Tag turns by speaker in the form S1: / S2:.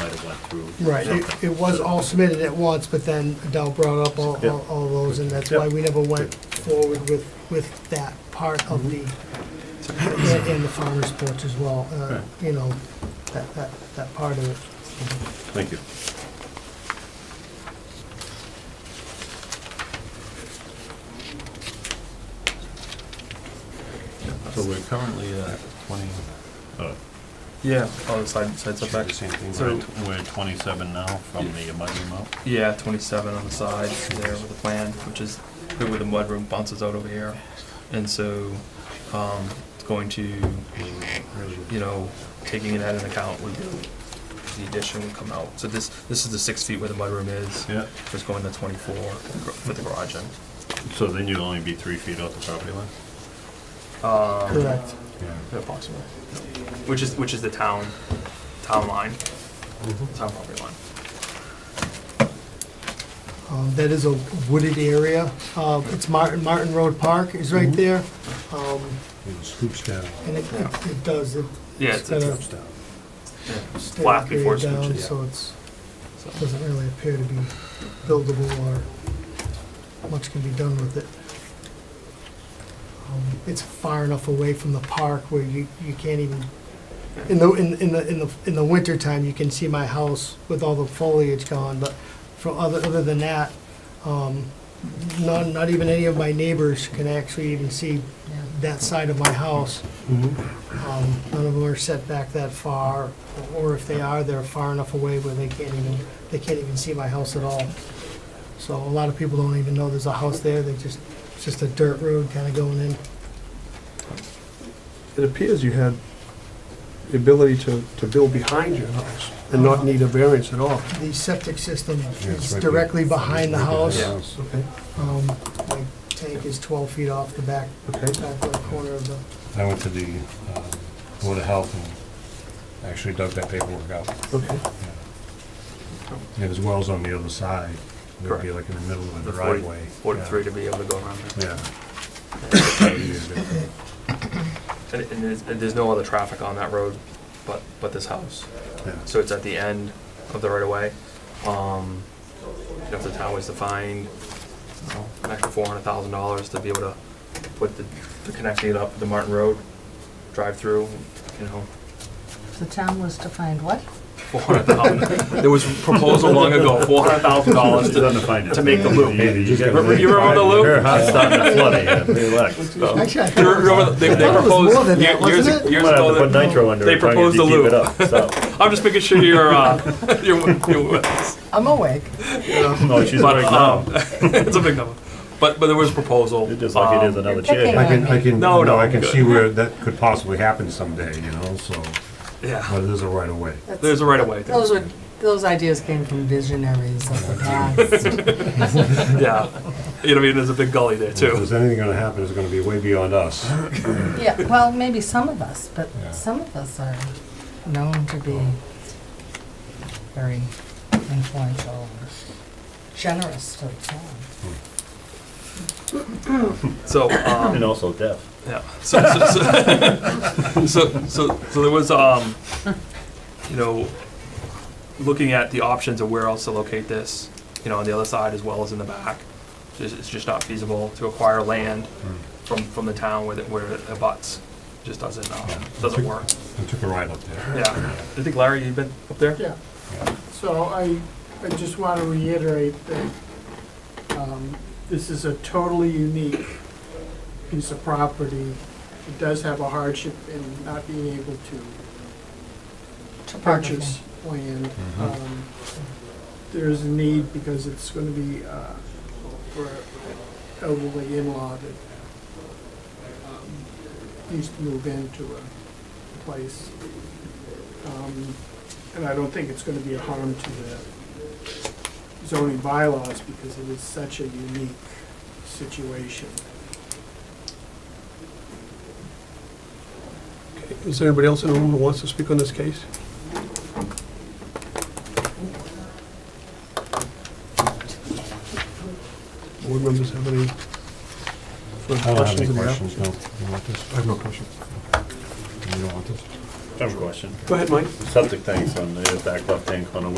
S1: went through.
S2: Right, it, it was all submitted at once, but then Adele brought up all, all- all those, and that's why we never went forward with, with that part of the, and and the farm reports as well, uh,
S1: Right.
S2: you know, that, that, that part of it.
S1: Thank you. So we're currently at twenty, uh,
S3: Yeah, oh, the side, side
S1: should be
S3: setback.
S1: the same thing,
S3: So-
S1: we're at- we're at twenty-seven now from the mudroom amount.
S3: Yeah, twenty-seven on the side there with the plan, which is where the mudroom bounces out over here. And so, um, it's going to, you know, taking that into account would be, the addition would come out. So this, this is the six feet where the mudroom is,
S1: Yeah,
S3: just going to twenty-four with the garage in.
S1: so then you'd only be three feet off the property line?
S3: Um,
S2: Correct.
S1: Yeah.
S3: Yeah, approximately. Which is, which is the town, town line,
S1: Mm-hmm.
S3: town property line.
S2: Um, That is a wooded area. Uh, It's Martin, Martin Road Park is right there. Um,
S4: It swoops down,
S2: And it, it it does, it
S3: Yeah,
S2: It's
S3: it's, it's,
S2: got
S4: drops down.
S3: yeah, it's
S2: stay
S3: flat before it
S2: down,
S3: switches.
S2: so it's,
S3: So,
S2: doesn't really appear to be buildable or much can be done with it. Um, It's far enough away from the park where you, you can't even, in the, in in the, in the, in the wintertime, you can see my house with all the foliage gone, but from other, other than that, um, not, not even any of my neighbors can actually even see that side of my house. Um, None of them are set back that far, or if they are, they're far enough away where they can't even, they can't even see my house at all. So a lot of people don't even know there's a house there, they just, it's just a dirt road kind of going in.
S4: It appears you had the ability to, to build behind your house and not need a variance at all.
S2: The septic system is
S4: it's right
S2: directly behind the house.
S3: Yeah.
S4: Okay,
S2: Um, My tank is 12 feet off the back,
S4: okay.
S2: back left corner of the,
S5: I went to the um, Board of Health and actually dug that paperwork out.
S4: Okay.
S5: And his well's on the other side. It would be like in the middle of
S3: The
S5: the
S3: forty-
S5: driveway.
S3: forty-three to be able to go around there.
S5: Yeah. Yeah.
S3: And, and there's, and there's no other traffic on that road but, but this house.
S5: Yeah.
S3: So it's at the end of the right of way. Um, you know, if the town was to find, you know, an extra four hundred thousand dollars to be able to put the, to connect it up with the Martin Road drive-through, you know,
S6: The town was to find what?
S3: four hundred thousand. There was a proposal long ago, four hundred thousand dollars
S1: It's
S3: to,
S1: undefined.
S3: to make the loop.
S1: You- you
S3: You
S1: get-
S3: remember the loop?
S1: Your house starting to flood again, relax.
S4: Oh.
S2: actually, I
S3: You
S2: thought
S3: remember, they, they
S2: I thought it was more
S3: proposed,
S2: than
S3: years,
S2: that,
S3: years
S2: wasn't it?
S1: You
S3: years
S1: might have
S3: ago,
S1: to put
S3: that-
S1: nitro under
S3: they
S1: it, probably
S3: proposed
S1: to
S3: the
S1: keep
S3: loop.
S1: it up, so.
S3: I'm just making sure you're, uh, you're, you're,
S6: I'm awake.
S1: No, she's
S3: But,
S1: right
S3: um,
S1: now.
S3: it's a big number. But but there was a proposal.
S1: It's just like it is
S3: um,
S1: another
S6: picking
S1: chair.
S5: I can, I can,
S3: No,
S5: no,
S3: no,
S5: I can
S3: good.
S5: see where that could possibly happen someday, you know, so,
S3: Yeah,
S5: but it is a right of way.
S3: there's a right of way. there.
S6: Those were, those ideas came from visionaries of the past.
S3: Yeah, you know what I mean. There's a big gully there
S5: If
S3: too.
S5: there's anything gonna happen, it's gonna be way beyond us.
S6: Yeah, well, maybe some of us, but
S5: Yeah.
S6: some of us are known to be very influential, generous to the town.
S3: So um,
S1: And also deaf.
S3: yeah. So so, so, so so so there was um, you know, looking at the options of where else to locate this, you know, on the other side as well as in the back. Just, it's just not feasible to acquire land
S1: Hmm.
S3: from from the town where it, where it abuts. Just doesn't um, doesn't work.
S5: I took a ride up there.
S3: Yeah. I think Larry, you've been up there.
S7: Yeah, so I, I just want to reiterate that um, this is a totally unique piece of property. It does have a hardship in not being able to
S6: Topography.
S7: purchase land. Um, There is a need because it's going to be uh, for elderly in-law that um, needs to move into a place. Um, and I don't think it's gonna be a harm to the zoning bylaws because it is such a unique situation.
S4: Is there anybody else in the room who wants to speak on this case? Board members have any further
S5: I don't have
S4: questions
S5: any
S4: of the app-
S5: questions, no. You want this?
S4: I have no questions.
S5: You don't want this?
S1: I have a question.
S4: Go ahead, Mike.
S1: Septic tanks on the back left-hand corner,